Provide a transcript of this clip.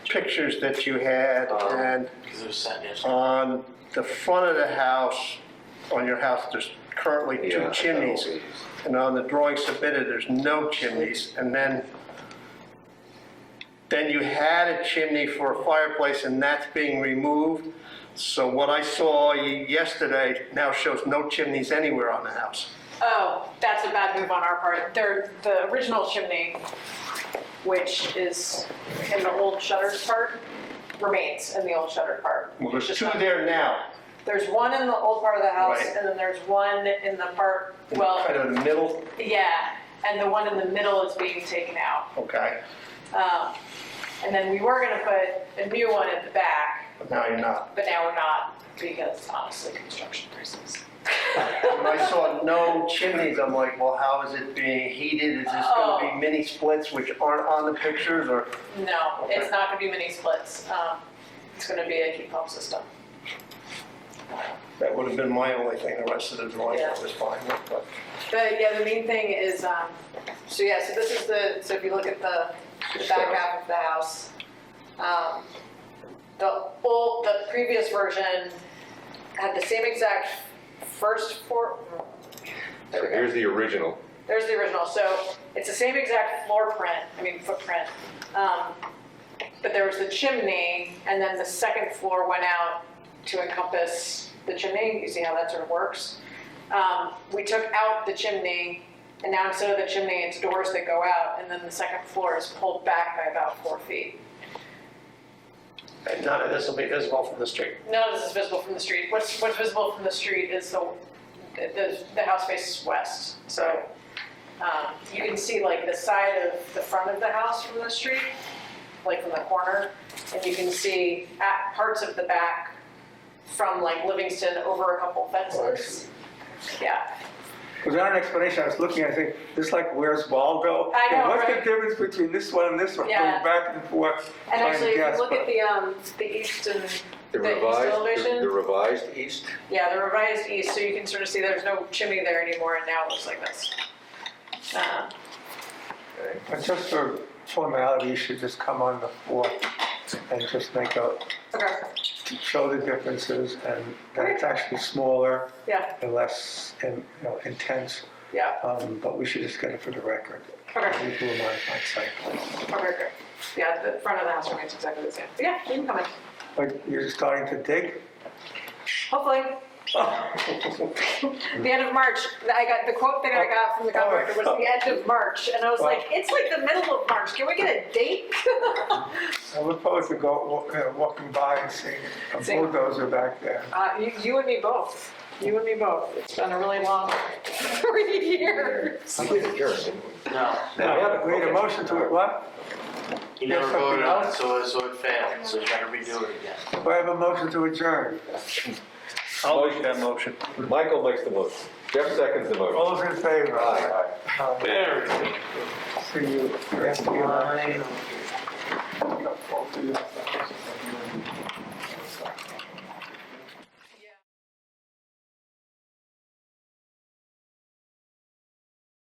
pictures that you had Um, and Because it was sent yesterday. on the front of the house, on your house, there's currently two chimneys. And on the drawing submitted, there's no chimneys. And then, then you had a chimney for a fireplace and that's being removed. So what I saw ye- yesterday now shows no chimneys anywhere on the house. Oh, that's a bad move on our part. There, the original chimney, which is in the old shutters part, remains in the old shutter part. Well, there's It's just two not- there now, There's one in the old part of the house, Right. and then there's one in the part, kind well, of in the middle, yeah, and the one in the middle is being taken out. okay, Um, And then we were gonna put a new one at the back, but now you're not. but now we're not, because honestly, construction prices. When I saw no chimneys, I'm like, well, how is it being heated? Is this gonna Oh. be mini splits which aren't on the pictures or? No, Okay. it's not gonna be mini splits. Um, It's gonna be a heat pump system. That would have been my only thing, the rest of the drawing I was fine with, but. But yeah, the main thing is, um, so yeah, so this is the, so if you look at the, the back half of the house, um, the old, the previous version had the same exact first floor. There we go. Here's the original. There's the original, so it's the same exact floor print, I mean footprint. Um, But there was the chimney, and then the second floor went out to encompass the chimney, you see how that sort of works? Um, We took out the chimney, and now instead of the chimney, it's doors that go out, and then the second floor is pulled back by about four feet. And none of this will be visible from the street. None of this is visible from the street. What's, what's visible from the street is the, the, the house faces west. So, um, you can see like the side of the front of the house from the street, like from the corner. And you can see at parts of the back from like Livingston over a couple fences. Yeah, Without an explanation, I was looking, I think, just like where's Waldo? I know, And What's right? the difference between this one and this one? Yeah. Going back and forth, and trying actually, to if guess, you look but- at the, um, the east and, The The east revised, the- elevation? the revised east? yeah, the revised east, so you can sort of see there's no chimney there anymore and now it looks like this. Um, Okay. But just for formality, you should just come on the fourth and just make a, Okay, show the differences and that it's actually smaller yeah, and less, in- you know, intense. yeah. Um, But we should just get it for the record. Okay. We can remind my site plan. Okay, great. Yeah, the front of the house remains exactly the same. But Yeah, you can come in, But you're starting to dig? hopefully. The end of March, I got, the quote that I got from the contractor was the end of March, and I was like, it's like the middle of March, can we get a date? I look forward to go, wa- uh, walking by and seeing a See. bulldozer back there. Uh, you, you and me both, you and me both. It's been a really long three years. We did adjourn, didn't we? No, Yeah, We need okay. a motion to it, what? you There's never something voted on it, else? so, so it failed, so you gotta redo it again. Do I have a motion to adjourn? I'll make that motion. Michael makes the motion. Jeff seconds the motion. All those in favor? Aye. Aye. There we go. See you. Thank you.